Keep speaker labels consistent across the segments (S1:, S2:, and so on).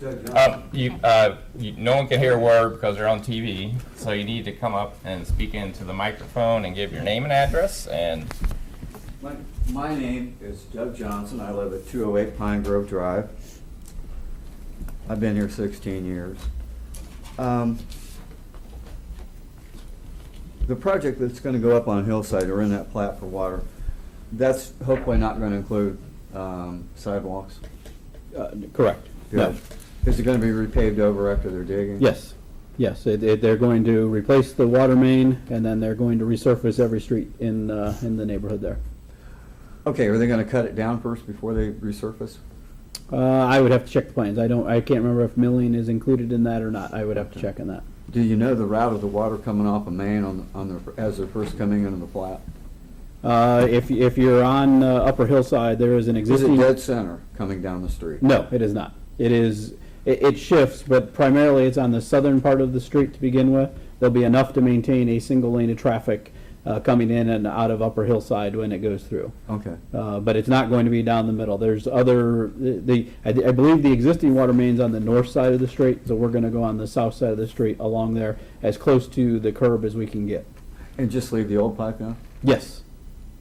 S1: Doug Johnson.
S2: Uh, you, uh, you, no one can hear a word because they're on TV, so you need to come up and speak into the microphone and give your name and address and
S1: My, my name is Doug Johnson. I live at 208 Pine Grove Drive. I've been here 16 years. Um, The project that's going to go up on Hillside or in that plat for water, that's hopefully not going to include um, sidewalks.
S3: Uh, Correct. No.
S1: Is it going to be repaved over after they're digging?
S3: Yes, yes. It- it- They're going to replace the water main, and then they're going to resurface every street in, uh, in the neighborhood there.
S1: Okay, are they going to cut it down first before they resurface?
S3: Uh, I would have to check the plans. I don't, I can't remember if milling is included in that or not. I would have to check on that.
S1: Do you know the route of the water coming off of Main on, on their, as they're first coming into the plat?
S3: Uh, If, if you're on uh, Upper Hillside, there is an
S1: Is
S3: existing.
S1: it dead center coming down the street?
S3: No, it is not. It is, it, it shifts, but primarily it's on the southern part of the street to begin with. There'll be enough to maintain a single lane of traffic uh, coming in and out of Upper Hillside when it goes through.
S1: Okay.
S3: Uh, but it's not going to be down the middle. There's other, the, I, I believe the existing water main's on the north side of the street, so we're gonna go on the south side of the street along there, as close to the curb as we can get.
S1: And just leave the old pipe down?
S3: Yes,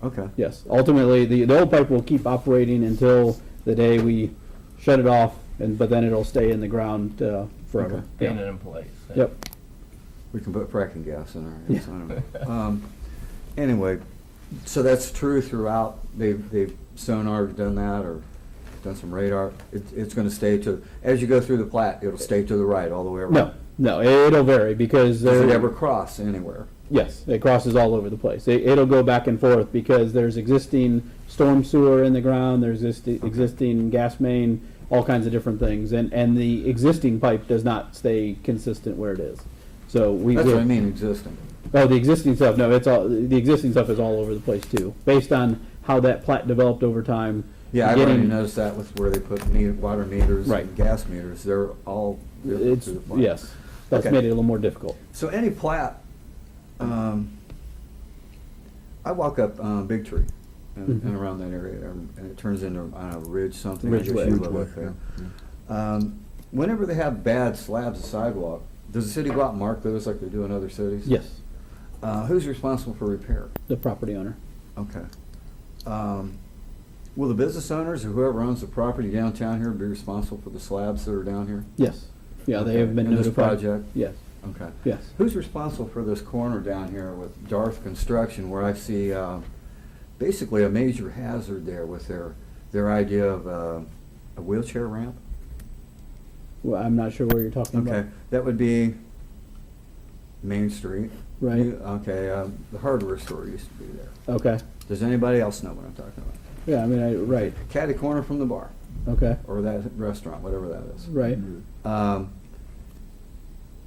S1: Okay.
S3: yes. Ultimately, the, the old pipe will keep operating until the day we shut it off, and, but then it'll stay in the ground, uh, forever.
S1: Okay.
S3: Yeah.
S2: pin it in place.
S3: Yep.
S1: We can put fracking gas in there. yes, I don't
S2: Yeah.
S1: know. Um, Anyway, so that's true throughout. They've, they've sonar done that or done some radar. It's, it's gonna stay to, as you go through the plat, it'll stay to the right all the way around.
S3: No, no, it'll vary because there.
S1: Does it ever cross anywhere?
S3: Yes, it crosses all over the place. It, it'll go back and forth because there's existing storm sewer in the ground, there's existing, existing gas main, all kinds of different things, and, and the existing pipe does not stay consistent where it is. So we.
S1: That's what I
S3: we-
S1: mean, existing.
S3: Oh, the existing stuff, no, it's all, the existing stuff is all over the place too, based on how that plat developed over time.
S1: Yeah, I've already
S3: getting-
S1: noticed that with where they put meter, water meters
S3: Right.
S1: and gas meters. They're all different
S3: It's,
S1: through the plat.
S3: yes, that's
S1: Okay.
S3: made it a little more difficult.
S1: So any plat, um, I walk up, um, Big Tree and, and
S3: Mhm.
S1: around that area, there, and it turns into, I don't know, ridge something. I guess
S3: Ridgeway.
S1: you live up there. Um, whenever they have bad slabs of sidewalk, does the city go out and mark those like they do in other cities?
S3: Yes,
S1: Uh, who's responsible for repair?
S3: the property owner.
S1: Okay. Um, will the business owners or whoever owns the property downtown here be responsible for the slabs that are down here?
S3: Yes, yeah, they
S1: Okay.
S3: have been
S1: In this
S3: notified.
S1: project?
S3: Yes,
S1: Okay.
S3: yes.
S1: Who's responsible for this corner down here with Darth Construction, where I see uh, basically a major hazard there with their, their idea of uh, a wheelchair ramp?
S3: Well, I'm not sure where you're talking about.
S1: Okay, that would be Main Street.
S3: Right.
S1: You- Okay, uh, the hardware store used to be there.
S3: Okay.
S1: Does anybody else know what I'm talking about?
S3: Yeah, I mean, I, right.
S1: Catty corner from the bar,
S3: Okay.
S1: or that restaurant, whatever that is.
S3: Right.
S1: Um,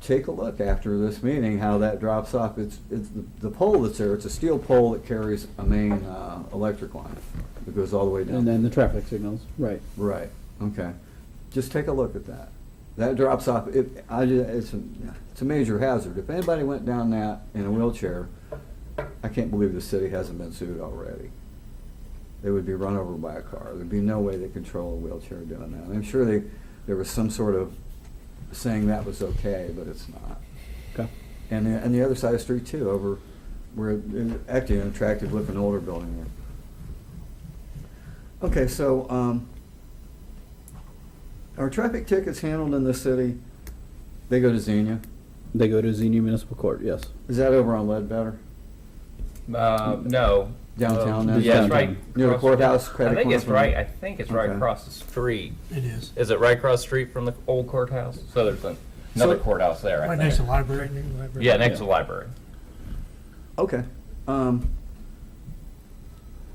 S1: Take a look after this meeting, how that drops off. It's, it's the- the pole that's there, it's a steel pole that carries a main uh, electric line that goes all the way down.
S3: And then the traffic signals. Right.
S1: Right, okay. Just take a look at that. That drops off, it, I, ju- it's, a- it's a major hazard. If anybody went down that in a wheelchair, I can't believe the city hasn't been sued already. They would be run over by a car. There'd be no way they control a wheelchair doing that. I'm sure they, there was some sort of saying that was okay, but it's not.
S3: Okay.
S1: And, the- and the other side of the street too, over where, it- actually an attractive looking older building there. Okay, so, um, are traffic tickets handled in the city? They go to Xenia?
S3: They go to Xenia Municipal Court. Yes.
S1: Is that over on Ledbetter?
S2: Uh, no.
S1: Downtown
S2: Uh,
S1: then?
S2: Yeah, it's
S3: Downtown.
S2: right.
S1: Near the
S2: across-
S1: courthouse,
S2: I
S1: credit
S2: think
S1: corner
S2: it's
S1: from-
S2: right, I think it's right
S1: Okay.
S2: across the street.
S4: It is.
S2: Is it right across the street from the old courthouse? So there's an- another
S1: So-
S2: courthouse there, I
S4: Right next to the
S2: think.
S4: library, new library.
S2: Yeah, next to the library.
S1: Okay. Um,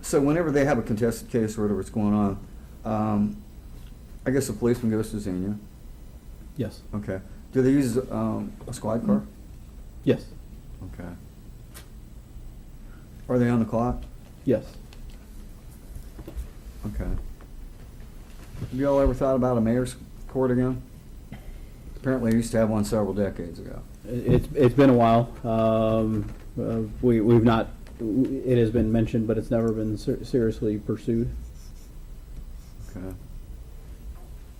S1: so whenever they have a contested case or whatever's going on, um, I guess the policeman goes to Xenia.
S3: Yes.
S1: Okay. Do they use, um, a squad car?
S3: Yes.
S1: Okay. Are they on the clock?
S3: Yes.
S1: Okay. Have y'all ever thought about a mayor's court again? Apparently, we used to have one several decades ago.
S3: I- It's it's been a while. Um, uh, we we've not. It has been mentioned, but it's never been ser- seriously pursued.
S1: Okay.